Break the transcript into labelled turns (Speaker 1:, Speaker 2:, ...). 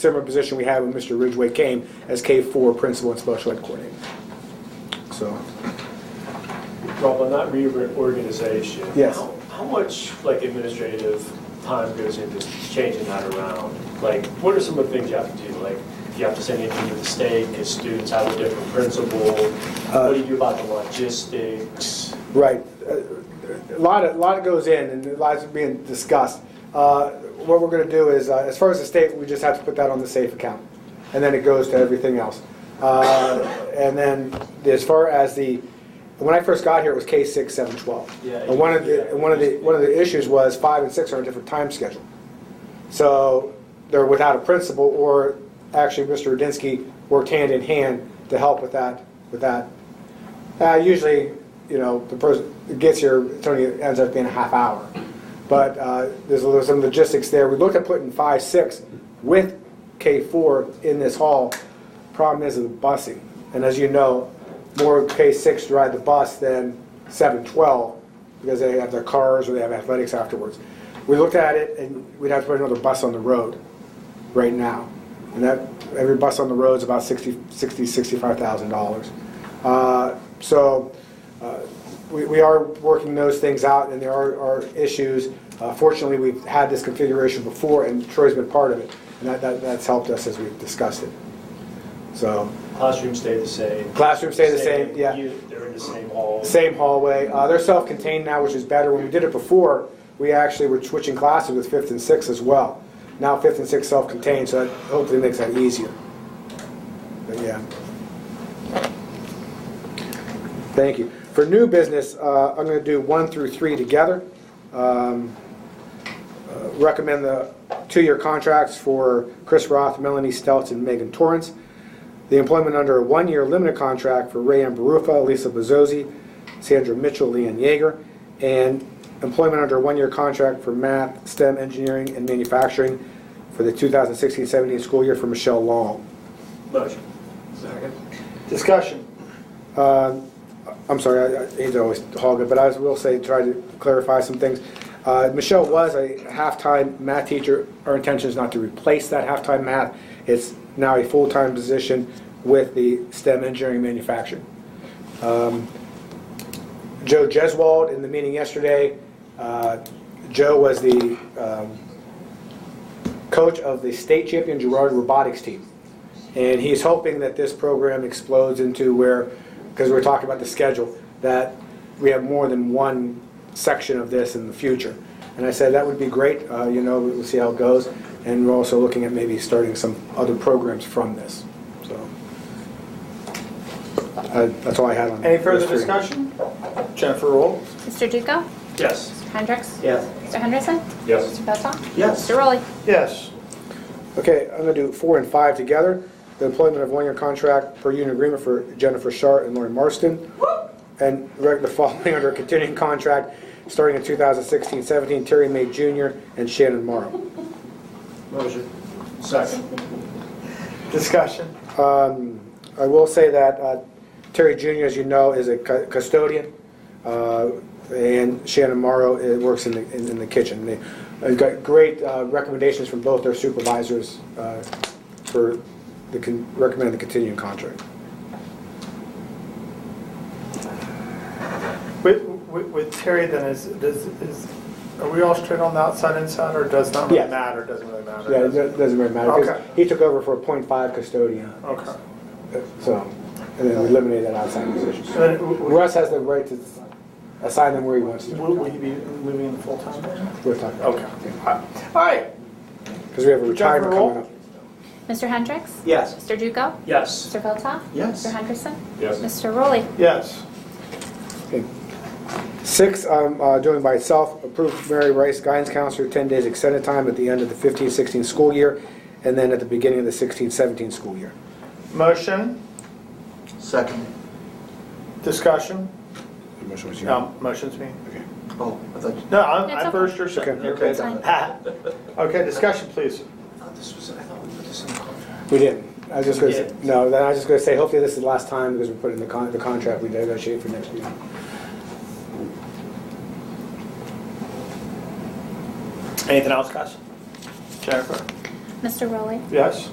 Speaker 1: similar position we had when Mr. Ridgway came as K-4 principal and special ed coordinator. So,
Speaker 2: Rob, on that reorganization.
Speaker 1: Yes.
Speaker 2: how- How much, like, administrative time goes into changing that around? Like, what are some of the things you have to do? Like, do you have to send anything to the state, because students have a different principal?
Speaker 1: Uh,
Speaker 2: What do you do about the logistics?
Speaker 1: right, a lot, a lot goes in and a lot's being discussed. Uh, What we're going to do is, uh, as far as the state, we just have to put that on the safe account, and then it goes to everything else. Uh, And then, as far as the, when I first got here, it was K-6, 7, 12.
Speaker 2: Yeah,
Speaker 1: And one of the, and one of the, one of the issues was 5 and 6 are on a different time schedule. So they're without a principal, or actually, Mr. Rudinsky worked hand in hand to help with that, with that. Uh, usually, you know, the person that gets here, it's only ends up being a half hour. But uh, there's a little, some logistics there. We looked at putting five, six with K four in this hall. Problem is with the busing, and as you know, more K six ride the bus than seven, twelve, because they have their cars or they have athletics afterwards. We looked at it, and we'd have to put another bus on the road right now. And that, every bus on the road is about 60, 60, $65,000. Uh, So uh, we we are working those things out, and there are are issues. Uh, Fortunately, we've had this configuration before, and Troy's been part of it, and that- that that's helped us as we've discussed it. So
Speaker 2: Classrooms stay the same?
Speaker 1: classrooms stay the same, yeah.
Speaker 2: you- They're in the same hall?
Speaker 1: Same hallway. Uh, they're self-contained now, which is better. When we did it before, we actually were switching classes with fifth and sixth as well. Now fifth and sixth self-contained, so that hopefully makes that easier. But yeah. Thank you. For new business, uh, I'm going to do one through three together. Um, uh, Recommend the two-year contracts for Chris Roth, Melanie Stelz, and Megan Torrance the employment under a one-year limited contract for Ray Ambarufa, Lisa Bezzosi, Sandra Mitchell, Leanne Yeager, and employment under a one-year contract for math, STEM, engineering, and manufacturing for the 2016-17 school year for Michelle Long.
Speaker 2: Motion.
Speaker 3: Discussion.
Speaker 1: Uh, I'm sorry, I I hate to always hog it, but I will say, try to clarify some things. Uh, Michelle was a half-time math teacher. Our intention is not to replace that half-time math. It's now a full-time position with the STEM engineering manufacturing. Joe Jeswald in the meeting yesterday. Uh, Joe was the um, coach of the state champion Girard robotics team. And he's hoping that this program explodes into where, because we're talking about the schedule, that we have more than one section of this in the future. And I said, that would be great, uh, you know, we'll see how it goes. And we're also looking at maybe starting some other programs from this, so. uh, That's all I had on.
Speaker 3: Any further
Speaker 1: those three.
Speaker 3: discussion? Jennifer Roll?
Speaker 4: Mr. Duco?
Speaker 2: Yes.
Speaker 4: Hendricks?
Speaker 3: Yes.
Speaker 4: Mr. Henderson?
Speaker 2: Yes.
Speaker 4: Mr. Beltran?
Speaker 3: Yes.
Speaker 4: Mr. Rowley?
Speaker 3: Yes.
Speaker 1: Okay, I'm gonna do four and five together. The employment of one-year contract per union agreement for Jennifer Sharp and Lori Marston. And rec- the following under continuing contract, starting in 2016-17, Terry May Jr. and Shannon Morrow.
Speaker 2: Motion. Second.
Speaker 3: Discussion.
Speaker 1: Um, I will say that uh, Terry Jr., as you know, is a cu- custodian, uh, and Shannon Morrow uh, works in the, in in the kitchen. They- I've got great uh, recommendations from both their supervisors uh, for the, con- recommend the continuing contract.
Speaker 3: With, with with Terry then, is, does, is, are we all straight on the outside inside or does not
Speaker 1: Yes.
Speaker 3: really matter? Doesn't really matter?
Speaker 1: Yeah, it
Speaker 3: does it?
Speaker 1: doesn't doesn't really matter, because
Speaker 3: Okay.
Speaker 1: he took over for a .5 custodian,
Speaker 3: Okay.
Speaker 1: so, and then we eliminated that outside position.
Speaker 3: So then, w- w-
Speaker 1: Russ has the right to assign them where he wants to.
Speaker 3: will, will you be moving in the full-time? then?
Speaker 1: We're talking,
Speaker 3: Okay. All right.
Speaker 1: because we have a retirement
Speaker 3: roll.
Speaker 1: coming up.
Speaker 4: Mr. Hendricks?
Speaker 3: Yes.
Speaker 4: Mr. Duco?
Speaker 2: Yes.
Speaker 4: Mr. Beltran?
Speaker 3: Yes.
Speaker 4: Mr. Henderson?
Speaker 2: Yes.
Speaker 4: Mr. Rowley?
Speaker 3: Yes.
Speaker 1: Okay. Six, I'm uh, doing by itself, approve Mary Rice, guidance counselor, 10 days extended time at the end of the 15-16 school year, and then at the beginning of the 16-17 school year.
Speaker 3: Motion,
Speaker 5: Second.
Speaker 3: discussion?
Speaker 1: The motion was
Speaker 3: No, motion's me.
Speaker 1: Okay.
Speaker 5: Oh, I thought you-
Speaker 3: No, I'm,
Speaker 4: It's
Speaker 3: I'm
Speaker 4: okay.
Speaker 3: first or
Speaker 1: Okay.
Speaker 3: second.
Speaker 5: Okay.
Speaker 4: It's fine.
Speaker 3: Ha. Okay, discussion, please.
Speaker 5: I thought this was, I thought we put this in the contract.
Speaker 1: We didn't. I was just gonna, say-
Speaker 5: You didn't.
Speaker 1: no, then I was just gonna say, hopefully this is the last time, because we put in the con, the contract we negotiate for next year.
Speaker 3: Anything else, guys? Jennifer?
Speaker 6: Mr. Rowley?
Speaker 4: Yes?